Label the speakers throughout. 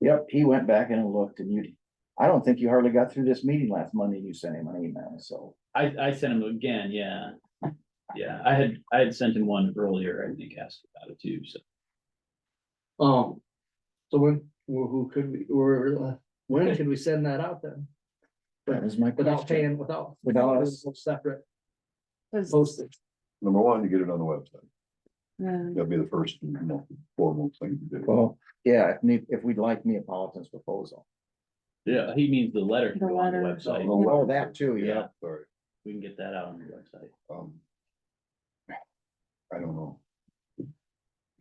Speaker 1: Yep, he went back and looked and you, I don't think you hardly got through this meeting last Monday. and You sent him an email, so.
Speaker 2: I, I sent him again, yeah. Yeah, I had, I had sent him one earlier, I think, asked about it too, so.
Speaker 3: Oh, so when, who who could we, or uh, when could we send that out then?
Speaker 1: That was my
Speaker 3: Without
Speaker 1: question.
Speaker 3: paying, without.
Speaker 1: Without us.
Speaker 3: Separate
Speaker 4: Cause,
Speaker 3: postage.
Speaker 5: Number one, you get it on the website.
Speaker 4: um,
Speaker 5: That'd be the first, you know, formal thing to do.
Speaker 1: Well, yeah, if, ne- if we'd like Neapolitan's proposal.
Speaker 2: Yeah, he means the letter can
Speaker 4: The
Speaker 2: go on the
Speaker 4: letter.
Speaker 2: website.
Speaker 5: Oh,
Speaker 1: Oh, that too, yeah.
Speaker 2: Yeah.
Speaker 5: Sorry,
Speaker 2: We can get that out on the website.
Speaker 5: um. I don't know.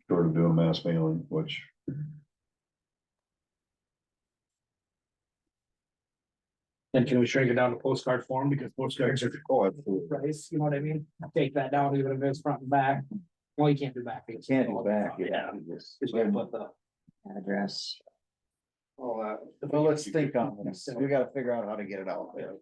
Speaker 5: Sort of do a mass mailing, which.
Speaker 3: And can we shrink it down to postcard form because postcards are
Speaker 5: Oh, absolutely.
Speaker 3: price, you know what I mean? Take that down, even if it's front and back. Well, you can't do back.
Speaker 1: You can't do back, yeah. you just-
Speaker 3: Cause you gotta put the,
Speaker 4: address.
Speaker 3: uh, all that.
Speaker 1: Well, let's think on this. We gotta figure out how to get it out there.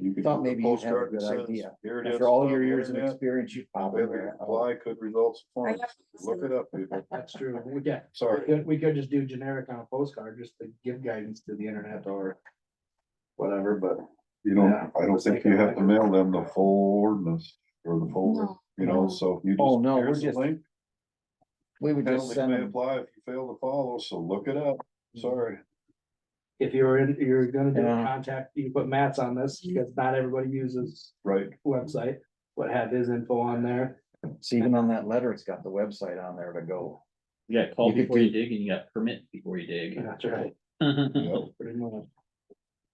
Speaker 5: You could
Speaker 1: Thought
Speaker 5: do a
Speaker 1: maybe you'd have a
Speaker 5: postcard
Speaker 1: good
Speaker 5: that says,
Speaker 1: idea.
Speaker 5: Here it is.
Speaker 1: After all
Speaker 5: on
Speaker 1: your
Speaker 5: the
Speaker 1: years of
Speaker 5: internet,
Speaker 1: experience, you probably.
Speaker 5: available to Apply could results
Speaker 4: I
Speaker 5: form.
Speaker 4: have to
Speaker 5: Look it up, people.
Speaker 3: That's true. We get, we
Speaker 5: Sorry.
Speaker 3: could, we could just do generic on a postcard, just to give guidance to the internet or whatever, but.
Speaker 5: You don't,
Speaker 3: Yeah.
Speaker 5: I don't think you have to mail them the full ordinance or the full,
Speaker 4: No,
Speaker 5: you
Speaker 4: no.
Speaker 5: know, so if you just.
Speaker 1: Oh, no, we're
Speaker 5: here's the
Speaker 1: just-
Speaker 5: link,
Speaker 1: We would just
Speaker 5: Penalties
Speaker 1: send
Speaker 5: may
Speaker 1: them,
Speaker 5: apply if you fail to follow, so look it up. Sorry.
Speaker 3: If you're in, you're gonna do a
Speaker 1: Yeah.
Speaker 3: contact, you put Matt's on this, because not everybody uses
Speaker 5: Right,
Speaker 3: website, what had his info on there.
Speaker 1: it's even on that letter, it's got the website on there to go.
Speaker 2: You got call
Speaker 1: You could
Speaker 2: before you dig and you got permit before you dig.
Speaker 3: That's right,
Speaker 5: yeah,
Speaker 3: pretty much.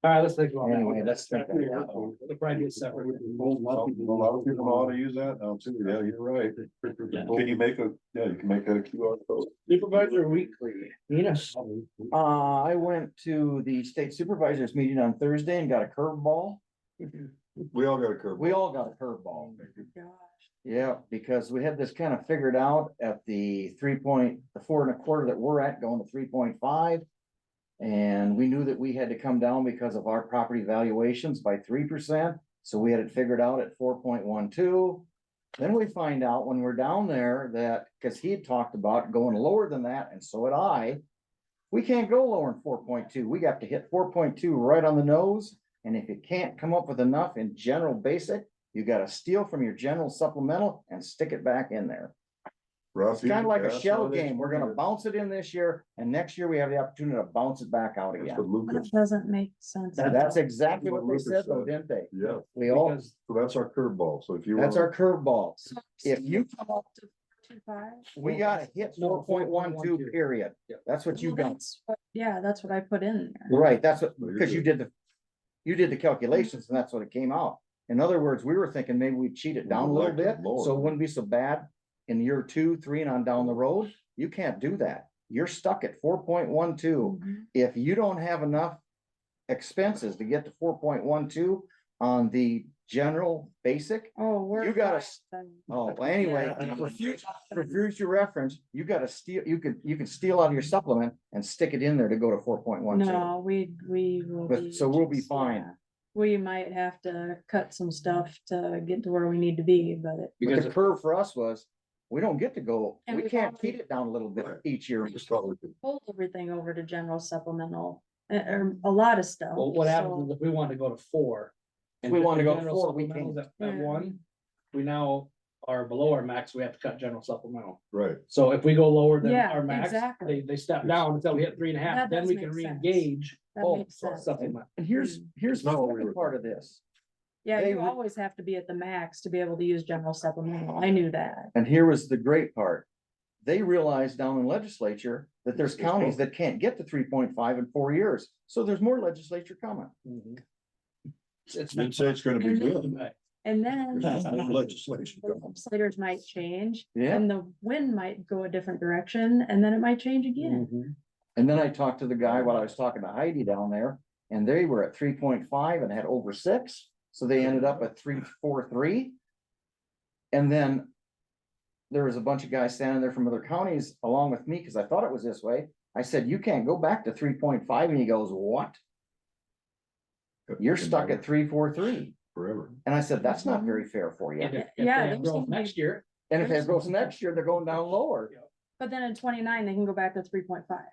Speaker 3: All right, let's think about that.
Speaker 1: Anyway, let's think about that.
Speaker 3: It'll probably be separate.
Speaker 5: a lot of people ought to use that now too, yeah, you're right. Can you make a, yeah, you can make that a QR code.
Speaker 3: Supervisor Weekly, Enos.
Speaker 1: Uh, I went to the state supervisors meeting on Thursday and got a curveball.
Speaker 5: We all got a curve.
Speaker 1: We all got a curveball.
Speaker 4: Gosh,
Speaker 1: Yeah, because we had this kind of figured out at the three point, the four and a quarter that we're at going to three point five. And we knew that we had to come down because of our property valuations by three percent, so we had it figured out at four point one two. Then we find out when we're down there that, because he had talked about going lower than that, and so had I. We can't go lower than four point two, we got to hit four point two right on the nose, and if you can't come up with enough in general basic. You gotta steal from your general supplemental and stick it back in there. It's
Speaker 5: Rough, you
Speaker 1: kinda like a
Speaker 5: pass
Speaker 1: shell
Speaker 5: on this
Speaker 1: game. We're gonna
Speaker 5: year.
Speaker 1: bounce it in this year and next year we have the opportunity to bounce it back out
Speaker 5: That's
Speaker 1: again.
Speaker 5: what Lucas,
Speaker 4: That doesn't make sense.
Speaker 1: So That's exactly
Speaker 5: what
Speaker 1: what they
Speaker 5: Rupert
Speaker 1: said though,
Speaker 5: said.
Speaker 1: didn't they?
Speaker 5: yeah,
Speaker 1: We all,
Speaker 5: so that's our curveball, so if you.
Speaker 1: that's
Speaker 5: wanna-
Speaker 1: our curveball.
Speaker 4: So
Speaker 1: If you-
Speaker 4: come up to two five.
Speaker 1: We gotta hit
Speaker 3: No,
Speaker 1: four point one two
Speaker 3: 4.12.
Speaker 1: period.
Speaker 3: Yeah.
Speaker 1: That's what you
Speaker 4: Well,
Speaker 1: got.
Speaker 4: that's what- Yeah, that's what I put in there.
Speaker 1: Right, that's what,
Speaker 5: No, you're
Speaker 1: because you
Speaker 5: good.
Speaker 1: did the, you did the calculations and that's what it came out. In other words, we were thinking maybe we cheat it
Speaker 5: We
Speaker 1: down a
Speaker 5: would
Speaker 1: little
Speaker 5: like to
Speaker 1: bit,
Speaker 5: lower
Speaker 1: so it
Speaker 5: it.
Speaker 1: wouldn't be so bad. In year two, three and on down the road, you can't do that. You're stuck at four point one two.
Speaker 4: Mhm.
Speaker 1: If you don't have enough expenses to get to four point one two on the general basic.
Speaker 4: Oh, we're.
Speaker 1: You gotta
Speaker 4: fine
Speaker 1: s-
Speaker 4: then.
Speaker 1: Oh, well, anyway,
Speaker 4: Yeah.
Speaker 1: for future, for future reference, you gotta steal, you could, you can steal out of your supplement and stick it in there to go to four point one two.
Speaker 4: No, we, we will
Speaker 1: But-
Speaker 4: be.
Speaker 1: so we'll be
Speaker 4: just-
Speaker 1: fine.
Speaker 4: yeah. We might have to cut some stuff to get to where we need to be, but it.
Speaker 1: But
Speaker 3: Because
Speaker 1: the curve for us was, we don't get to go,
Speaker 4: And
Speaker 1: we
Speaker 4: we've
Speaker 1: can't
Speaker 4: already-
Speaker 1: feed it down a little bit
Speaker 5: Right.
Speaker 1: each year.
Speaker 5: I just thought we could-
Speaker 4: pulled everything over to general supplemental, uh, or a lot of stuff.
Speaker 3: Well, what happens
Speaker 4: so-
Speaker 3: is if we want to go to four. and
Speaker 1: We
Speaker 3: the
Speaker 1: wanna go
Speaker 3: general
Speaker 1: four, we
Speaker 3: supplemental's At at
Speaker 4: Yeah.
Speaker 3: one, we now are below our max, we have to cut general supplemental.
Speaker 5: Right,
Speaker 3: So if we go lower than
Speaker 4: Yeah,
Speaker 3: our max, they,
Speaker 4: exactly.
Speaker 3: they step down until we hit three and a half,
Speaker 4: That
Speaker 3: then
Speaker 4: does
Speaker 3: we can
Speaker 4: make sense.
Speaker 3: reengage.
Speaker 4: That
Speaker 3: Oh,
Speaker 4: makes
Speaker 3: sorry,
Speaker 4: sense.
Speaker 3: supplement.
Speaker 1: And here's,
Speaker 4: Mm.
Speaker 1: here's the
Speaker 5: not what we
Speaker 1: second
Speaker 5: were
Speaker 1: part of this,
Speaker 4: Yeah,
Speaker 1: they
Speaker 4: you
Speaker 1: would-
Speaker 4: always have to be at the max to be able to use general supplemental. I knew that.
Speaker 1: and here was the great part. They realized down in legislature that there's
Speaker 5: There's more.
Speaker 1: counties that can't get to three point five in four years, so there's more legislature coming.
Speaker 3: Mhm. It's.
Speaker 5: didn't say it's gonna be good.
Speaker 3: Right.
Speaker 4: And then
Speaker 5: There's
Speaker 4: the
Speaker 5: no Legislation. going.
Speaker 4: legislators might change
Speaker 1: Yeah,
Speaker 4: and the wind might go a different direction and then it might change again.
Speaker 3: Mhm.
Speaker 1: and then I talked to the guy while I was talking to Heidi down there, and they were at three point five and had over six, so they ended up at three, four, three. And then there was a bunch of guys standing there from other counties along with me, because I thought it was this way. I said, you can't go back to three point five, and he goes, what? You're stuck at three, four, three.
Speaker 5: Forever.
Speaker 1: And I said, that's not very fair for you.
Speaker 3: If- if
Speaker 4: Yeah,
Speaker 3: they
Speaker 4: there's
Speaker 3: grow
Speaker 4: gonna be-
Speaker 3: Next year.
Speaker 1: And if it goes next year, they're going down lower.
Speaker 4: But then in twenty-nine, they can go back to three point five.